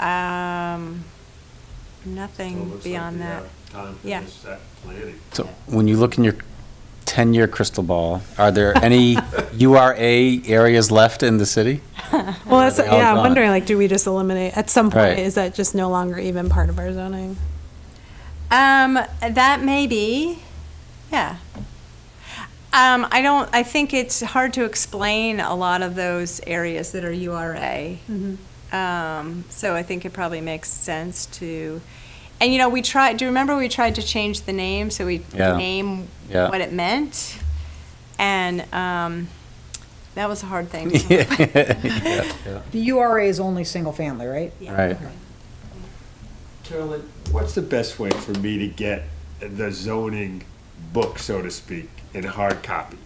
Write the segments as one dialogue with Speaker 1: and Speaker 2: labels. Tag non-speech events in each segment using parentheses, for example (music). Speaker 1: Um,
Speaker 2: So it
Speaker 1: nothing
Speaker 2: looks
Speaker 1: beyond
Speaker 2: like
Speaker 1: that.
Speaker 2: the, uh, Time for
Speaker 1: Yeah.
Speaker 2: this, that planning.
Speaker 3: So when you look in your 10-year crystal ball, are there
Speaker 4: (laughs)
Speaker 3: any URA areas left in the city?
Speaker 4: Well, that's,
Speaker 3: They're all
Speaker 4: yeah, I'm
Speaker 3: gone.
Speaker 4: wondering, like, do we just eliminate, at some point,
Speaker 3: Right.
Speaker 4: is that just no longer even part of our zoning?
Speaker 1: Um, that may be, yeah. Um, I don't, I think it's hard to explain a lot of those areas that are URA. Um, so I think it probably makes sense to, and you know, we tried, do you remember we tried to change the name, so we
Speaker 3: Yeah.
Speaker 1: name
Speaker 3: Yeah.
Speaker 1: what it meant? And, um, that was a hard thing.
Speaker 3: (laughs) Yeah, yeah.
Speaker 5: The URA is only single-family, right?
Speaker 3: Right.
Speaker 2: Carolyn, what's the best way for me to get the zoning book, so to speak, in hard copy?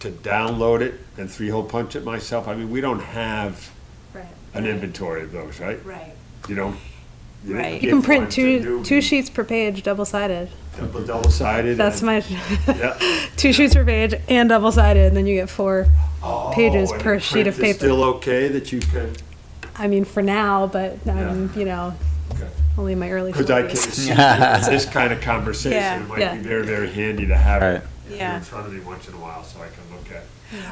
Speaker 2: To download it and three-hole punch it myself? I mean, we don't have
Speaker 1: Right,
Speaker 2: an inventory of those, right?
Speaker 1: right.
Speaker 2: You know? didn't
Speaker 1: Right. You
Speaker 4: You
Speaker 2: give
Speaker 4: can print
Speaker 2: one to
Speaker 4: two,
Speaker 2: newbie,
Speaker 4: two sheets per page, double-sided.
Speaker 2: double- Double-sided.
Speaker 4: That's
Speaker 2: and-
Speaker 4: my,
Speaker 2: (laughs)
Speaker 4: (laughs)
Speaker 2: Yeah.
Speaker 4: two sheets per page and double-sided, and then you get four pages
Speaker 2: Oh, and
Speaker 4: per
Speaker 2: the
Speaker 4: sheet of
Speaker 2: print is Still
Speaker 4: paper.
Speaker 2: okay that you can,
Speaker 4: I mean, for now, but I'm, you know,
Speaker 2: Okay.
Speaker 4: only in my early
Speaker 2: because I can
Speaker 4: forties.
Speaker 2: see that in this kind of conversation,
Speaker 1: Yeah.
Speaker 2: it might
Speaker 4: Yeah.
Speaker 2: be very, very handy to have
Speaker 3: Right.
Speaker 2: it here
Speaker 1: Yeah.
Speaker 2: in front of me once in a while, so I can look at.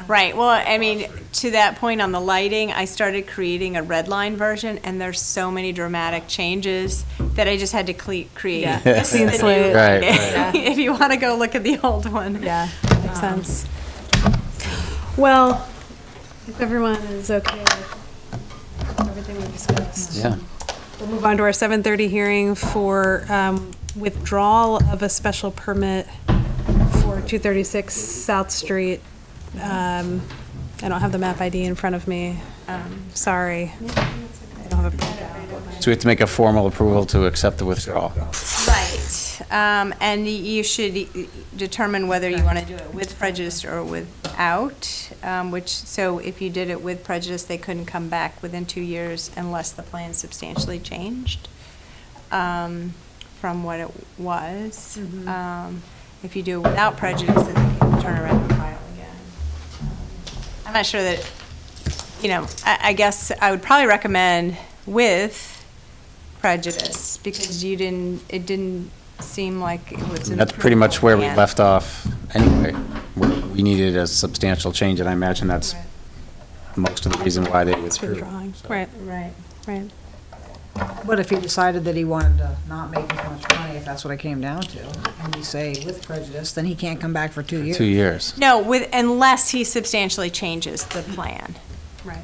Speaker 1: Right, well, I mean, to that point on the lighting, I started creating a red line version, and there's so many dramatic changes that I just had to cle- create.
Speaker 4: (laughs) Yeah.
Speaker 1: This is
Speaker 4: Clean
Speaker 1: the new
Speaker 4: slate.
Speaker 3: Right,
Speaker 1: lighting. (laughs)
Speaker 4: right.
Speaker 1: If you want to go look at the old one.
Speaker 4: Yeah, makes sense. Well, if everyone is okay with everything we discussed.
Speaker 3: Yeah.
Speaker 4: We'll move on to our 7:30 hearing for um, withdrawal of a special permit for 236 South Street. Um, I don't have the map ID in front of me. Um, Sorry. I don't have a-
Speaker 3: So we have to make a formal approval to accept the withdrawal.
Speaker 1: Right, um, and y- you should e- e- determine whether you want to do it with prejudice or without, um, which, so if you did it with prejudice, they couldn't come back within two years unless the plan substantially changed, um, from what it was. Um, if you do it without prejudice, then they can turn around and file again. I'm not sure that, you know, I, I guess I would probably recommend with, prejudice because you didn't, it didn't seem like it was. an
Speaker 3: That's pretty much where we
Speaker 1: approvable plan.
Speaker 3: left off anyway. where We needed a substantial change, and I imagine that's most of the reason why they
Speaker 4: It's
Speaker 3: withdrew.
Speaker 4: withdrawing. Right,
Speaker 1: Right.
Speaker 4: right.
Speaker 5: But if he decided that he wanted to not make as much money, if that's what it came down to, and we say with prejudice, then he can't come back for two years.
Speaker 3: Two years.
Speaker 1: No, with, unless he substantially changes the plan.
Speaker 4: Right.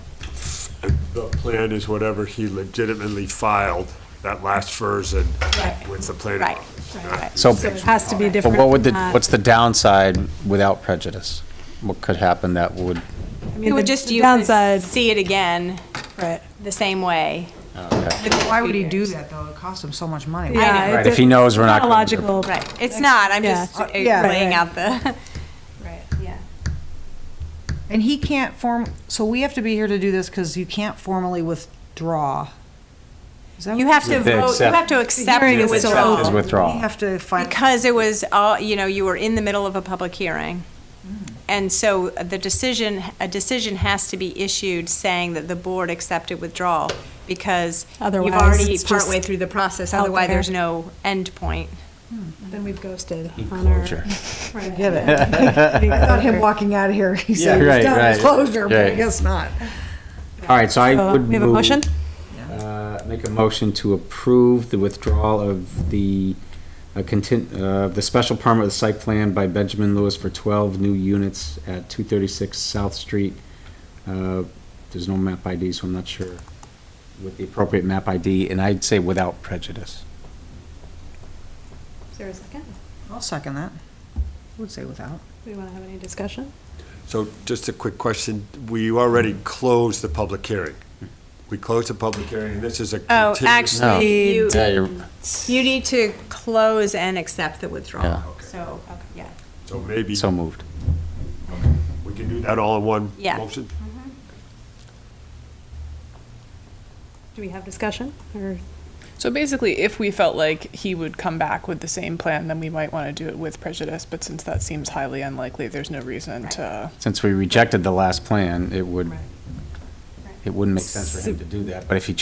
Speaker 2: The plan is whatever he legitimately filed that last version
Speaker 1: Right.
Speaker 2: with the planning
Speaker 1: Right,
Speaker 2: office.
Speaker 1: right,
Speaker 2: not
Speaker 1: right.
Speaker 3: So-
Speaker 4: So it has to be
Speaker 3: But
Speaker 4: different. uh,
Speaker 3: what would the,
Speaker 4: from that.
Speaker 3: what's the downside without prejudice? What could happen that would,
Speaker 4: I mean,
Speaker 1: It would
Speaker 4: the-
Speaker 1: just,
Speaker 4: the
Speaker 1: you could
Speaker 4: Downside,
Speaker 1: see it again
Speaker 4: right.
Speaker 1: the same way.
Speaker 3: okay.
Speaker 5: Why would he do that, though? It costs him so much money.
Speaker 4: Yeah, it
Speaker 3: Right, if he
Speaker 4: does-
Speaker 3: knows we're
Speaker 4: it's
Speaker 3: not gonna do it.
Speaker 4: Logical.
Speaker 1: Right, it's not, I'm
Speaker 4: Yeah.
Speaker 1: just
Speaker 5: Uh,
Speaker 1: uh,
Speaker 5: yeah.
Speaker 1: laying
Speaker 4: Right.
Speaker 1: out the, right, yeah.
Speaker 5: And he can't form, so we have to be here to do this because you can't formally withdraw. Is that
Speaker 1: You
Speaker 5: what-
Speaker 1: have to
Speaker 3: With the
Speaker 1: vote, you
Speaker 3: accept-
Speaker 1: have to accept
Speaker 4: hearing
Speaker 1: the
Speaker 4: is still open.
Speaker 1: withdrawal.
Speaker 3: His withdrawal.
Speaker 5: We have to find.
Speaker 1: Because it was, all you know, you were in the middle of a public hearing.
Speaker 5: Mm-hmm.
Speaker 1: And so the decision, a decision has to be issued saying that the board accepted withdrawal because you've
Speaker 4: Otherwise,
Speaker 1: already
Speaker 4: it's just
Speaker 1: partway through the process,
Speaker 4: out
Speaker 1: otherwise
Speaker 4: there.
Speaker 1: there's no end point.
Speaker 4: Then we've ghosted on our.
Speaker 3: Closure.
Speaker 5: Get it.
Speaker 3: (laughs)
Speaker 5: I thought him walking out of here, (laughs) he said
Speaker 3: Yeah,
Speaker 5: he was
Speaker 3: right,
Speaker 5: done
Speaker 3: right.
Speaker 5: with closure, but I
Speaker 3: Right.
Speaker 5: guess not.
Speaker 3: All right, so I
Speaker 4: So,
Speaker 3: would move.
Speaker 4: We have a motion?
Speaker 3: Uh, Make a motion to approve the withdrawal of the, uh, contin- uh, the special permit of the site plan by Benjamin Lewis for 12 new units at 236 South Street. Uh, There's no map ID, so I'm not sure with the appropriate map ID, and I'd say without prejudice.
Speaker 1: Is there a second?
Speaker 5: I'll second that. I would say without.
Speaker 4: Do we want to have any discussion?
Speaker 2: So just a quick question, we already closed the public hearing. We closed the public hearing, and this is a
Speaker 1: Oh,
Speaker 2: continuous.
Speaker 3: No.
Speaker 1: actually, you,
Speaker 3: you're.
Speaker 1: you need to close and accept the withdrawal,
Speaker 3: Yeah.
Speaker 1: so, yeah.
Speaker 2: So maybe
Speaker 3: So moved.
Speaker 2: we can do that all in one
Speaker 1: Yeah.
Speaker 2: motion?
Speaker 4: Do we have discussion or?
Speaker 6: So basically, if we felt like he would come back with the same plan, then we might want to do it with prejudice. But since that seems highly unlikely, there's no reason to.
Speaker 3: Since we rejected the last plan, it would,
Speaker 4: Right.
Speaker 3: it wouldn't make sense for him to do that, but if he